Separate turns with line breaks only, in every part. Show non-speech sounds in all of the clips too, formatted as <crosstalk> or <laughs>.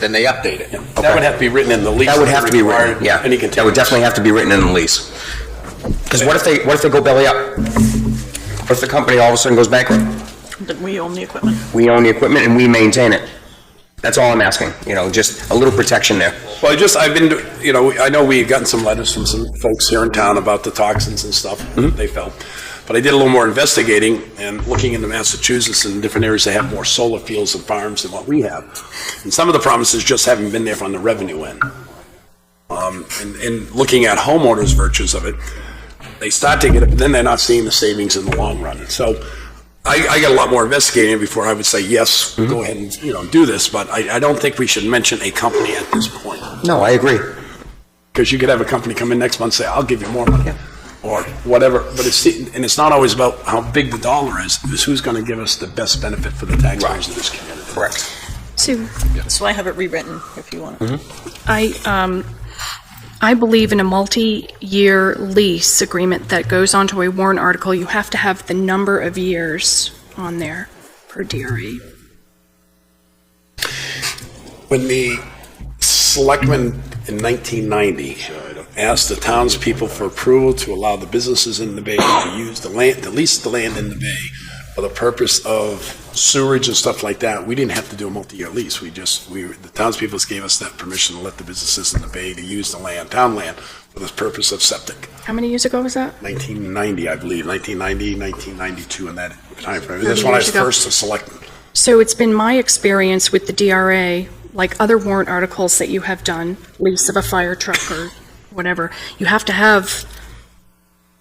then they update it.
That would have to be written in the lease.
That would have to be written,
required
yeah.
Any
That would
continuance.
definitely have to be written in the lease. Because what if they, what if they go belly up? What if the company all of a sudden goes bankrupt?
that we own the equipment.
We own the equipment and we maintain it. That's all I'm asking, you know, just a little protection there.
Well, I just, I've been, do- you know, I know we've gotten some letters from some folks here in town about the toxins and stuff they felt. But I did a little more investigating and looking into Massachusetts and different areas that have more solar fields and farms than what we have. And some of the promises just haven't been there from the revenue end. Um, and, and looking at homeowners' virtues of it, they start to get it, but then they're not seeing the savings in the long run. So I, I got a lot more investigating before I would say, yes, go ahead and, you know, do this, but I, I don't think we should mention a company at this point.
No, I agree.
Because you could have a company come in next month and say, I'll give you more money, or whatever, but it's, and it's not always about how big the dollar is, it's who's gonna give us the best benefit for the taxpayers in this community.
Correct.
Sue,
So I have it rewritten if you want.
I, um, I believe in a multi-year lease agreement that goes onto a warrant article. You have to have the number of years on there per DRA.
When the selectmen in nineteen ninety asked the townspeople for approval to allow the businesses in the bay to use the land, to lease the land in the bay for the purpose of sewerage and stuff like that, we didn't have to do a multi-year lease, we just, we, the townspeople just gave us that permission to let the businesses in the bay to use the land, town land, for the purpose of septic.
How many years ago was that?
1990, I believe, 1990, 1992, in that timeframe.
Thirty
That's when I
years
was
ago.
first a selectman.
So it's been my experience with the DRA, like other warrant articles that you have done, lease of a fire truck or whatever, you have to have,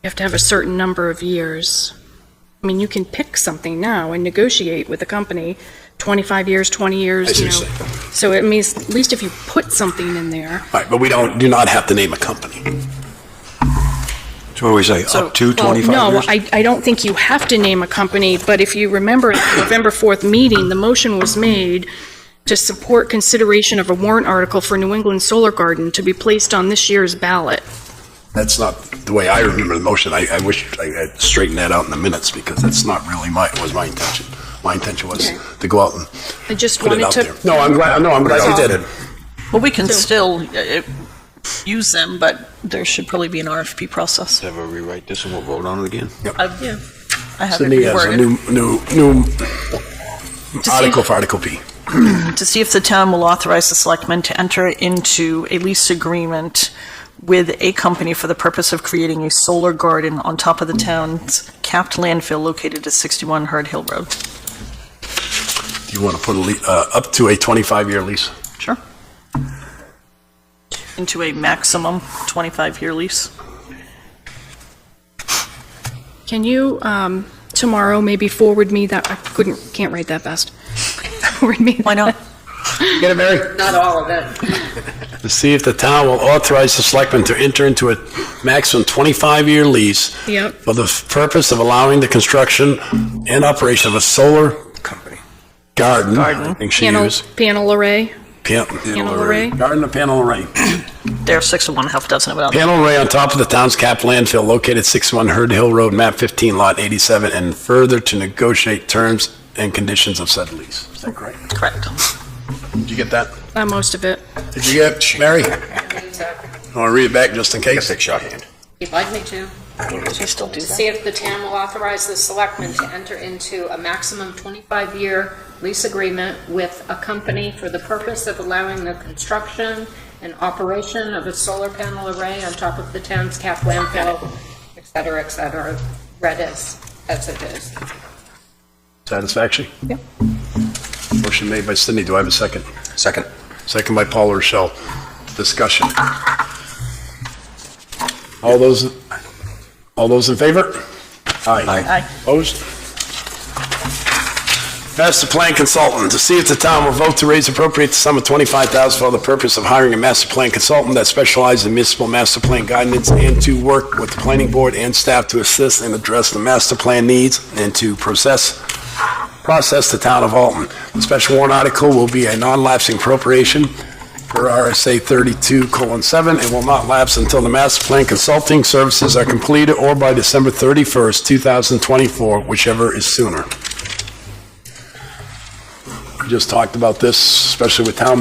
you have to have a certain number of years. I mean, you can pick something now and negotiate with a company, 25 years, 20
I
years,
see
you
what
know.
you're saying.
So it means, at least if you put something in there,
All right, but we don't, do not have to name a company.
So what do we say, up to
Well,
25 years?
No, I, I don't think you have to name a company, but if you remember at the November 4th meeting, the motion was made to support consideration of a warrant article for New England Solar Garden to be placed on this year's ballot.
That's not the way I remember the motion. I, I wish I had straightened that out in the minutes because that's not really my, was my intention. My intention was
Okay.
to go out and
I just
put it
wanted
out
to. Oh,
there. No, I'm glad, no, I'm glad you did it.
Well, we can still uh, uh, use them, but there should probably be an RFP process.
Have her rewrite this and we'll vote on it again?
I've- Yeah, I have it
Sydney has a
reworded
uh, new, new, new
see-
article for Article P.
to see if the town will authorize the selectmen to enter into a lease agreement with a company for the purpose of creating a solar garden on top of the town's capped landfill located at 61 Herd Hill Road.
Do you want to put a, le- uh, up to a 25-year lease?
Sure. Into a maximum 25-year lease.
Can you, um, tomorrow maybe forward me that, I couldn't, can't write that fast. <laughs> Forward me.
Why not?
Get it, Mary?
Not all of it.
To see if the town will authorize the selectmen to enter into a maximum 25-year lease
Yep.
for the purpose of allowing the construction and operation of a solar
Company.
garden, I think she
Panel,
used.
panel array,
Pan-
panel array.
Garden or panel array.
There are six of one, half a dozen of another.
Panel array on top of the town's capped landfill located 61 Herd Hill Road, map 15, lot 87, and further to negotiate terms and conditions of said lease. Is that correct?
Correct.
Did you get that?
Uh, most of it.
Did you get, it, Mary? Want to read it back just in case?
shorthand.
You'd like me to? See if the town will authorize the selectmen to enter into a maximum 25-year lease agreement with a company for the purpose of allowing the construction and operation of a solar panel array on top of the town's cap landfill, et cetera, et cetera, read as, as it is.
Satisfaction? Yeah. Motion made by Cindy. Do I have a second?
Second.
Second by Paul Rochelle. Discussion. All those, all those in favor? Aye.
Aye.
Opposed? Master Plan Consultant, to see if the town will vote to raise appropriate sum of 25000 for the purpose of hiring a master plan consultant that specializes in municipal master plan guidance and to work with the planning board and staff to assist and address the master plan needs and to process, process the town of Alton. The special warrant article will be a non-lapsing appropriation per RSA 32:7 and will not lapse until the master plan consulting services are completed or by December 31st, 2024, whichever is sooner. We just talked about this, especially with town